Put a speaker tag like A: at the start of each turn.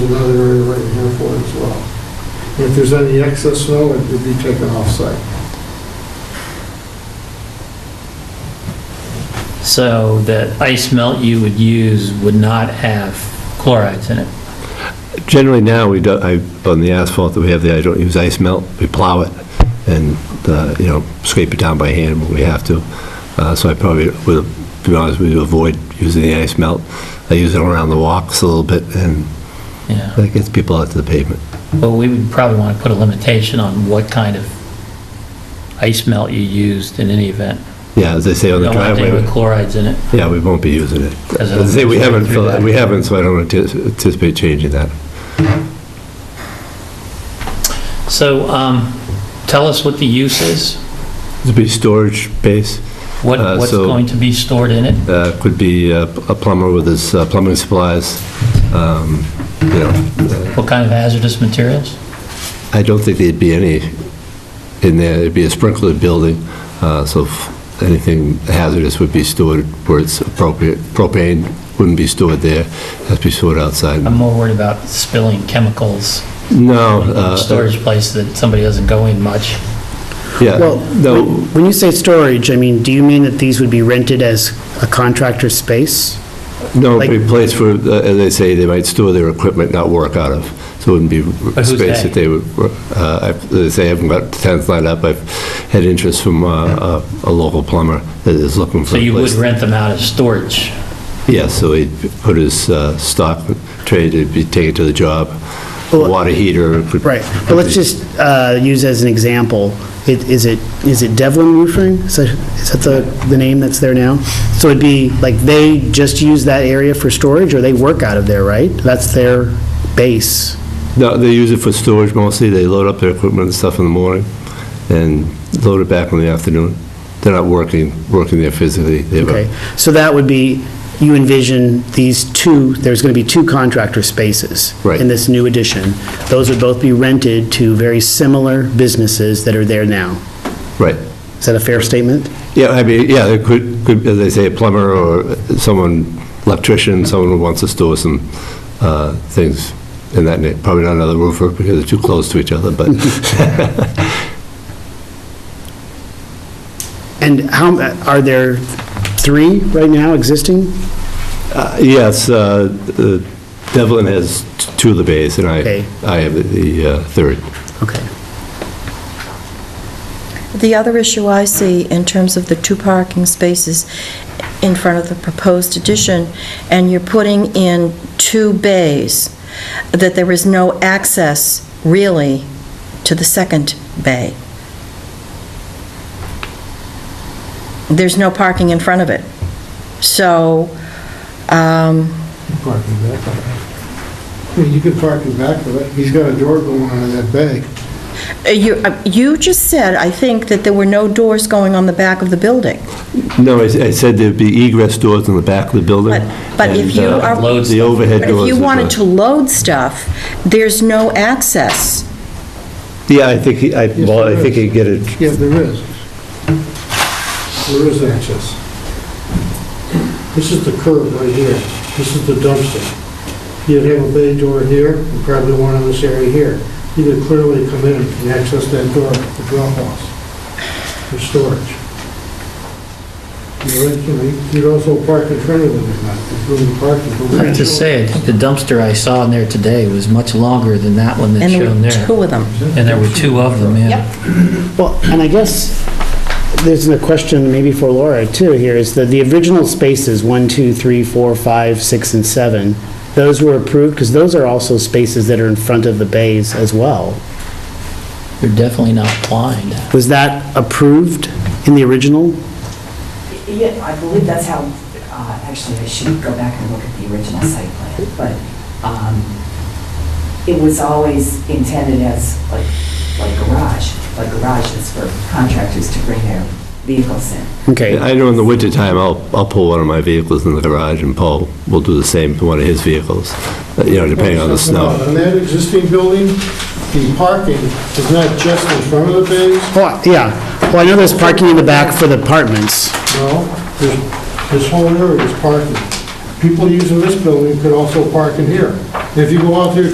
A: another area right in here for it as well. And if there's any excess snow, it would be taken off-site.
B: So the ice melt you would use would not have chlorides in it?
C: Generally now, we don't, I, on the asphalt that we have there, I don't use ice melt, we plow it and, uh, you know, scrape it down by hand when we have to. Uh, So I probably, would to be honest with you, avoid using the ice melt. I use it around the walks a little bit and
B: Yeah,
C: that gets people out to the pavement.
B: well, we would probably want to put a limitation on what kind of ice melt you used in any event.
C: Yeah, as they say on
B: You
C: the
B: don't want anything with
C: driveway,
B: chlorides in it.
C: yeah, we won't be using it.
B: As
C: As I say, we
B: it'll-
C: haven't,
B: through that.
C: we haven't, so I don't antici- anticipate changing that.
B: So um, tell us what the use is,
C: It'd be storage base.
B: what
C: Uh,
B: what's
C: so-
B: going to be stored in it?
C: Uh, Could be uh, a plumber with his uh, plumbing supplies, um, you know. uh,
B: What kind of hazardous materials?
C: I don't think there'd be any in there. It'd be a sprinkler building, uh, so if anything hazardous would be stored where it's appropriate. Propane wouldn't be stored there, has to be stored outside.
B: I'm more worried about spilling chemicals
C: No,
B: in a
C: uh,
B: storage place that somebody doesn't go in much.
C: yeah,
D: Well,
C: no,
D: When you say storage, I mean, do you mean that these would be rented as a contractor's space?
C: no
D: like-
C: it'd be a place for, uh, as they say, they might store their equipment, not work out of. So it wouldn't be
B: who's
C: space
B: they?
C: that they would, work- uh, I- as they say, I haven't got tenants lined up. I've had interest from uh, a a local plumber that is looking for
B: So
C: a place.
B: you would
C: to-
B: rent them out as storage?
C: Yeah, so he'd put his uh, stock trade, it'd be taken to the job,
D: Well-
C: water heater. could-
D: Right, but let's just uh, use as an example, it- is it, is it Devlin Roofing? Is that is that the, the name that's there now? So it'd be, like, they just use that area for storage, or they work out of there, right? That's their base.
C: No, they use it for storage mostly, they load up their equipment and stuff in the morning, and load it back in the afternoon. They're not working, working there physically. They have a-
D: Okay, so that would be, you envision these two, there's going to be two contractor spaces
C: Right.
D: in this new addition. Those would both be rented to very similar businesses that are there now.
C: Right,
D: Is that a fair statement?
C: yeah, I mean, yeah, it could, could, as they say, a plumber or someone, electrician, someone who wants to store some uh, things in that, na- probably not another roofer, because they're too close to each other, but
D: And how, are there three right now existing?
C: Uh, Yes, uh, uh, Devlin has t- two of the bays, and I,
D: Okay.
C: I have the uh, third.
D: Okay.
E: The other issue I see in terms of the two parking spaces in front of the proposed addition, and you're putting in two bays, that there is no access really to the second bay. There's no parking in front of it. So, um,
A: Parking back of it. I mean, You could park in back of it. He's got a door going on in that bay.
E: you, uh, you just said, I think, that there were no doors going on the back of the building.
C: No, I s- I said there'd be egress doors in the back of the building.
E: But- but if
C: and,
E: you
C: uh,
E: are-
B: Loads.
C: The overhead
E: But if
C: doors.
E: you
C: are
E: wanted
C: the-
E: to load stuff, there's no access.
C: Yeah, I think, he- I,
A: Yes,
C: well, I
A: there
C: think
A: is.
C: you get it,
A: Yeah, there is. There is access. This is the curb right here. This is the dumpster. You'd have a bay door here and probably one in this area here. You could clearly come in and access that door for drop-offs, for storage. You're right, you know, You'd also park in front of it, if not, if you're in the parking. but we
B: I have to
A: don't-
B: say, I think the dumpster I saw in there today was much longer than that one that's
E: And
B: shown
E: there were
B: there.
E: two of them.
B: And there were two of them, yeah.
D: Well, and I guess there's a question maybe for Laura too here, is that the original spaces, one, two, three, four, five, six, and seven, those were approved, because those are also spaces that are in front of the bays as well.
B: You're definitely not blind.
D: Was that approved in the original?
F: Yeah, I believe that's how, uh, actually, I should go back and look at the original site plan, but um, it was always intended as like, like garage, like garages for contractors to bring their vehicles in.
D: Okay.
C: I know in the wintertime, I'll, I'll pull one of my vehicles in the garage, and Paul will do the same to one of his vehicles, uh, you know, depending on the snow.
A: In that existing building, the parking is not just in front of the bays,
D: Oh, yeah. Well, I know there's parking in the back for the apartments.
A: No, this, this whole area is parking. People using this building could also park in here. If you go out there